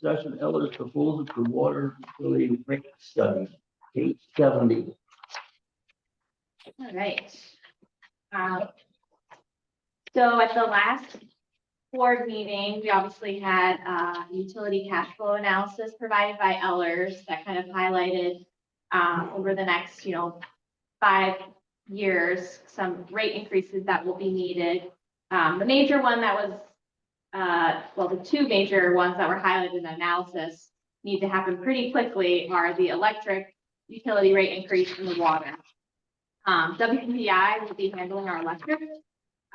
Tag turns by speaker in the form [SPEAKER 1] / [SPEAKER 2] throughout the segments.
[SPEAKER 1] discussion Elder's proposal for water utility rate study, eight seventy.
[SPEAKER 2] All right. Um, So at the last board meeting, we obviously had uh, utility cash flow analysis provided by Ellers that kind of highlighted um, over the next, you know, five years, some rate increases that will be needed. Um, The major one that was, uh, well, the two major ones that were highlighted in the analysis need to happen pretty quickly are the electric utility rate increase and the water. Um, WPI will be handling our electric.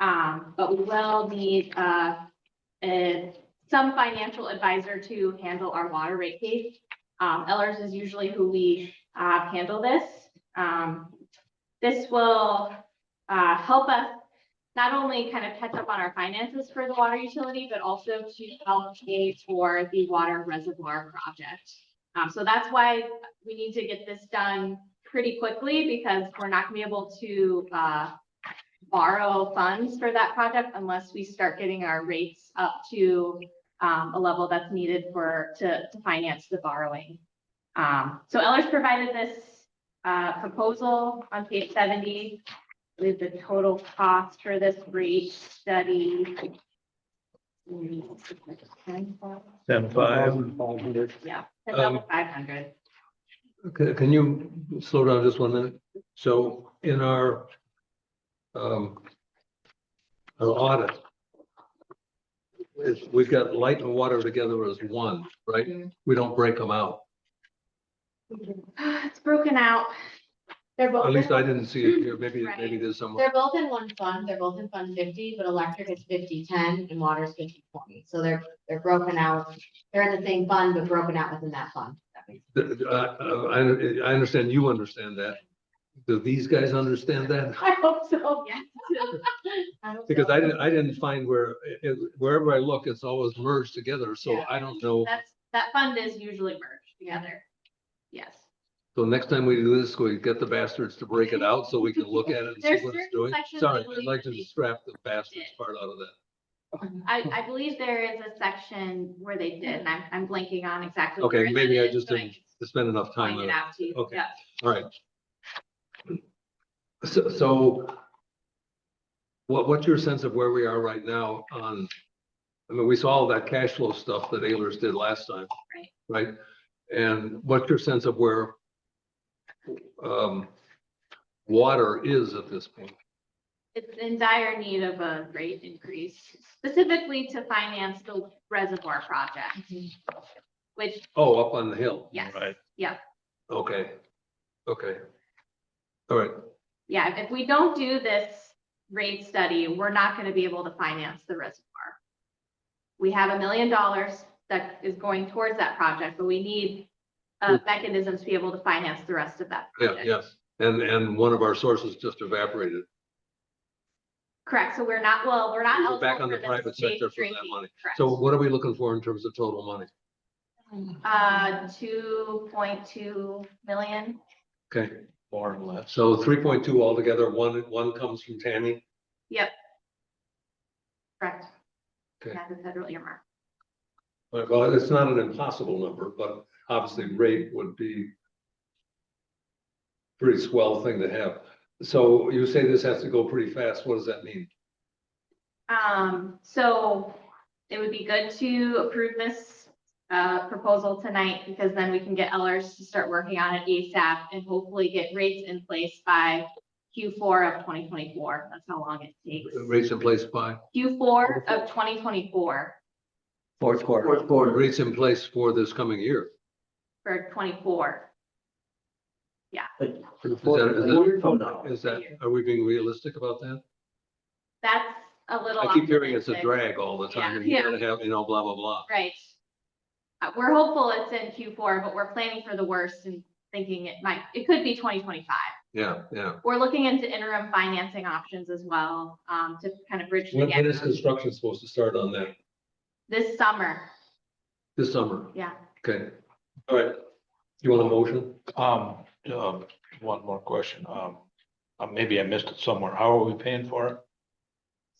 [SPEAKER 2] Um, but we will need, uh, a- some financial advisor to handle our water rate case. Um, Ellers is usually who we, uh, handle this. Um, this will, uh, help us not only kind of catch up on our finances for the water utility, but also to help pay for the water reservoir project. Um, so that's why we need to get this done pretty quickly because we're not gonna be able to, uh, borrow funds for that project unless we start getting our rates up to, um, a level that's needed for, to, to finance the borrowing. Um, so Ellers provided this, uh, proposal on page seventy with the total cost for this rate study. Yeah,
[SPEAKER 3] Ten five. Um,
[SPEAKER 2] five hundred.
[SPEAKER 3] Can, can you slow down just one minute? So in our um, our audit, it's- we've got light and water together as one, right?
[SPEAKER 2] Mhm.
[SPEAKER 3] We don't break them out.
[SPEAKER 2] It's broken out. They're both.
[SPEAKER 3] At least
[SPEAKER 2] in-
[SPEAKER 3] I didn't see it here. Maybe,
[SPEAKER 2] Right.
[SPEAKER 3] maybe there's somewhere.
[SPEAKER 4] They're both in one fund, they're both in fund fifty, but electric is 50-10 and water is 50-20. so they're, they're broken out. They're in the same fund, but broken out within that fund. That makes
[SPEAKER 3] Uh, uh, I, I understand you understand that. Do these guys understand that?
[SPEAKER 2] I hope so. Yeah.
[SPEAKER 4] sense.
[SPEAKER 3] Because I didn't, I didn't find where, it- wherever I look, it's always merged together. So
[SPEAKER 2] Yeah.
[SPEAKER 3] I don't know.
[SPEAKER 2] That's, that fund is usually merged together. Yes.
[SPEAKER 3] So next time we do this, we get the bastards to break it out so we can look at it and see
[SPEAKER 2] There's
[SPEAKER 3] what it's
[SPEAKER 2] certain
[SPEAKER 3] doing.
[SPEAKER 2] sections
[SPEAKER 3] Sorry,
[SPEAKER 2] that
[SPEAKER 3] I'd like to
[SPEAKER 2] we-
[SPEAKER 3] scrap the bastards part out of that.
[SPEAKER 2] I, I believe there is a section where they did, and I'm, I'm blanking on exactly.
[SPEAKER 3] Okay,
[SPEAKER 2] where that
[SPEAKER 3] maybe I
[SPEAKER 2] is,
[SPEAKER 3] just
[SPEAKER 2] but
[SPEAKER 3] didn't spend enough
[SPEAKER 2] can
[SPEAKER 3] time
[SPEAKER 2] Point it
[SPEAKER 3] on it.
[SPEAKER 2] out to you.
[SPEAKER 3] Okay.
[SPEAKER 2] Yeah.
[SPEAKER 3] All right. So, so what, what's your sense of where we are right now on, I mean, we saw all that cash flow stuff that Ayers did last time. Right. Right? And what's your sense of where um, water is at this point?
[SPEAKER 2] It's in dire need of a rate increase specifically to finance the reservoir project, which,
[SPEAKER 3] Oh, up on the hill.
[SPEAKER 2] yes.
[SPEAKER 5] Right.
[SPEAKER 2] Yeah.
[SPEAKER 3] Okay, okay. All right,
[SPEAKER 2] Yeah, if- if we don't do this rate study, we're not gonna be able to finance the reservoir. We have a million dollars that is going towards that project, but we need uh, mechanisms to be able to finance the rest of that.
[SPEAKER 3] Hmm. yeah,
[SPEAKER 2] project.
[SPEAKER 3] yes, and, and one of our sources just evaporated.
[SPEAKER 2] Correct, so we're not, well, we're not.
[SPEAKER 3] We're back
[SPEAKER 2] eligible
[SPEAKER 3] on the
[SPEAKER 2] for this
[SPEAKER 3] private
[SPEAKER 2] safe
[SPEAKER 3] sector for that
[SPEAKER 2] drinking,
[SPEAKER 3] money.
[SPEAKER 2] correct.
[SPEAKER 3] So what are we looking for in terms of total money?
[SPEAKER 2] Uh, two point two million,
[SPEAKER 3] Okay,
[SPEAKER 5] More or less.
[SPEAKER 3] so three point two altogether, one, one comes from Tammy.
[SPEAKER 2] correct?
[SPEAKER 3] Okay.
[SPEAKER 2] Yeah, the federal earmark.
[SPEAKER 3] Well, it's not an impossible number, but obviously rate would be pretty swell thing to have. So you say this has to go pretty fast. What does that mean?
[SPEAKER 2] Um, so it would be good to approve this uh proposal tonight because then we can get Ellers to start working on it ASAP and hopefully get rates in place by Q four of twenty twenty-four. That's how long it takes.
[SPEAKER 3] Rates in place by,
[SPEAKER 2] Q four of twenty twenty-four
[SPEAKER 1] Fourth quarter. Fourth quarter.
[SPEAKER 3] rates in place for this coming year.
[SPEAKER 2] for twenty-four.
[SPEAKER 1] For the
[SPEAKER 3] Is that- is that-
[SPEAKER 1] fourth quarter.
[SPEAKER 3] Is that, are we being realistic about that?
[SPEAKER 2] That's a little.
[SPEAKER 3] I keep hearing it's a
[SPEAKER 2] optimistic.
[SPEAKER 3] drag all the time, and you
[SPEAKER 2] Yeah.
[SPEAKER 3] gotta have, you know, blah, blah, blah.
[SPEAKER 2] Right. Uh, we're hopeful it's in Q four, but we're planning for the worst and thinking it might, it could be twenty twenty-five.
[SPEAKER 3] Yeah, yeah.
[SPEAKER 2] We're looking into interim financing options as well, um, to kind of bridge the
[SPEAKER 3] When,
[SPEAKER 2] gap
[SPEAKER 3] when is construction supposed to start on that?
[SPEAKER 2] this summer.
[SPEAKER 3] This summer?
[SPEAKER 2] Yeah.
[SPEAKER 3] Okay, all right. You want a motion?
[SPEAKER 5] Um, um, one more question. Um, uh, maybe I missed it somewhere. How are we paying for it?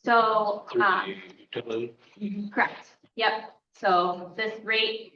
[SPEAKER 2] So,
[SPEAKER 5] Through
[SPEAKER 2] uh,
[SPEAKER 5] the utility?
[SPEAKER 2] correct. Yep. So this rate